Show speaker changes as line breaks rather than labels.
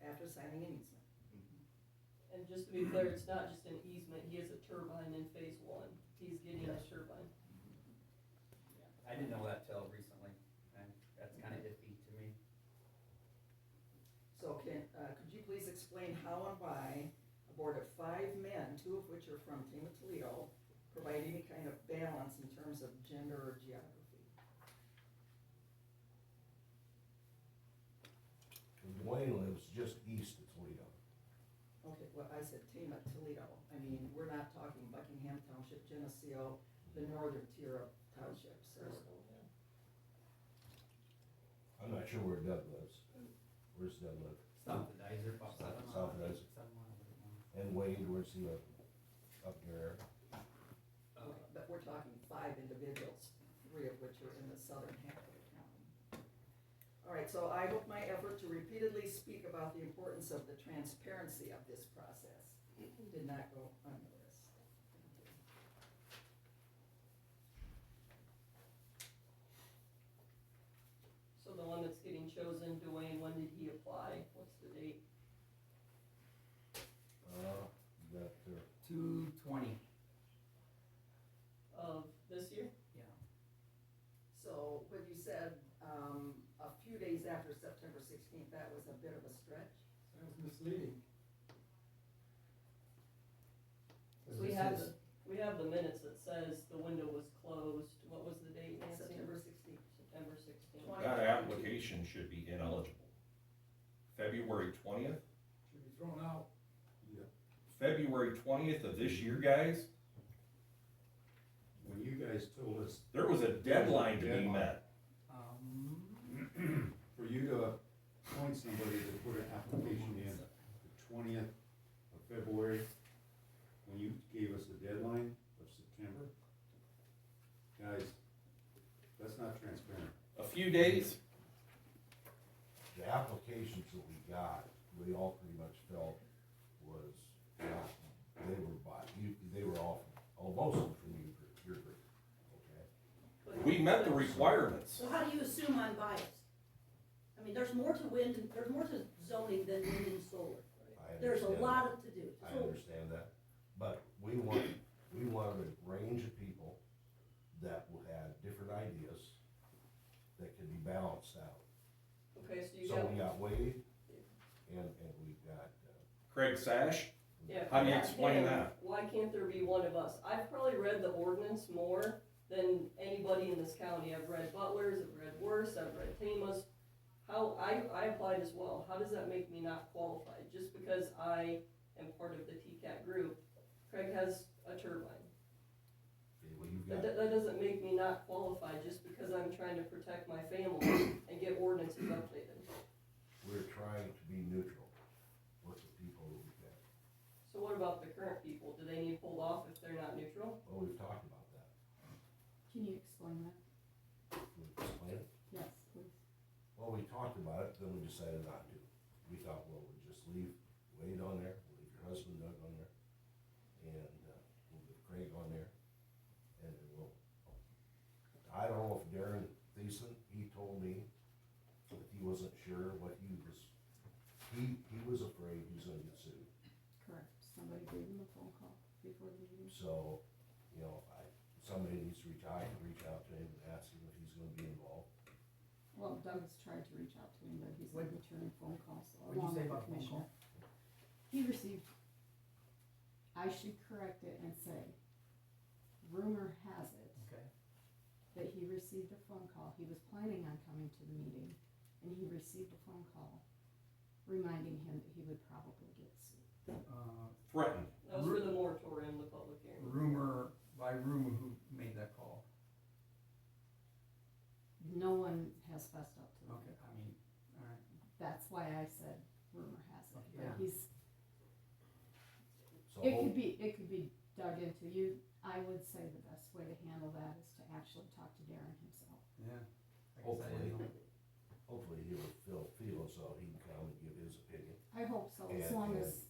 after signing an easement.
And just to be clear, it's not just an easement, he has a turbine in phase one, he's getting a
Yes.
turbine.
I didn't know that till recently, and that's kind of iffy to me.
So can, uh, could you please explain how and why a board of five men, two of which are from Tama Toledo, provide any kind of balance in terms of gender or geography?
Dwayne lives just east of Toledo.
Okay, well, I said Tama Toledo, I mean, we're not talking Buckingham Township, Geneseo, the northern tier of townships, or,
I'm not sure where Doug lives. Where's Doug live?
South of Dyzer, about seven miles.
South of Dyzer.
Seven miles, eight miles.
And Wade, where's he live? Up there.
okay, but we're talking five individuals, three of which are in the southern half of the county. All right, so I hope my effort to repeatedly speak about the importance of the transparency of this process did not go unnoticed. Thank you.
So the one that's getting chosen, Dwayne, when did he apply, what's the date?
Uh, you got there.
Two twenty.
Of this year?
Yeah.
So what you said, um, a few days after September sixteenth, that was a bit of a stretch.
That was misleading.
We have, the- we have the minutes that says the window was closed, what was the date, Nancy?
September sixteenth.
September sixteenth.
Twenty.
That application should be ineligible. February twentieth,
Should be thrown out.
February twentieth of this year, guys,
When you guys told us
there was a deadline to be
Deadline.
met.
Um,
for you to appoint somebody to put an application in the twentieth of February, when you gave us the deadline of September, guys, that's not transparent.
A few days,
The applications that we got, we all pretty much felt was, yeah, they were by, you, they were all, almost from your group, your group, okay?
we met the requirements.
So how do you assume I'm biased? I mean, there's more to wind, and there's more to zoning than wind and solar.
I
There's a
understand
lot
that.
of to do.
I
So
understand that, but we want, we wanted a range of people that will have different ideas that can be balanced out.
Okay, so you
So we
got,
got Wade and, and we've got, uh,
Craig Sash,
yeah.
how do you
why
explain
can't-
that?
Why can't there be one of us? I've probably read the ordinance more than anybody in this county, I've read Butler's, I've read Worse, I've read Tama's. How, I, I applied as well, how does that make me not qualified? Just because I am part of the TCAT group, Craig has a turbine.
well, you've
That,
got,
that that doesn't make me not qualified just because I'm trying to protect my family and get ordinances updated.
we're trying to be neutral with the people that we've got.
So what about the current people? Do they need pulled off if they're not neutral?
Well, we've talked about that.
Can you explain that?
Can we explain it?
Yes, please.
Well, we talked about it, then we decided not to. We thought, well, we'll just leave Wade on there, we'll leave your husband Doug on there, and, uh, we'll leave Craig on there, and then we'll. I don't know if Darren Thiessen, he told me that he wasn't sure what he was, he, he was afraid he was gonna get sued.
Correct. Somebody gave him a phone call before the meeting.
So, you know, I, somebody needs to reach out, reach out to him and ask him if he's gonna be involved.
Well, Doug's tried to reach out to him, but he's
What-
returning phone calls
what'd you
along
say
with the
about the phone
commissioner. He received, I should correct it and say, rumor has it
Okay.
that he received a phone call. He was planning on coming to the meeting and he received a phone call reminding him that he would probably get sued.
Uh,
Threatened.
That was for the moratorium, the public hearing.
rumor, by rumor who made that call.
No one has fessed up to that.
Okay, I mean, all right.
That's why I said rumor has it,
Yeah.
but he's,
So
it
hopefully.
could be, it could be dug into. You, I would say the best way to handle that is to actually talk to Darren himself.
Yeah. I guess I didn't know.
hopefully he will feel, feel as though he can come and give his opinion.
I hope so, as
And-
long
and-
as um,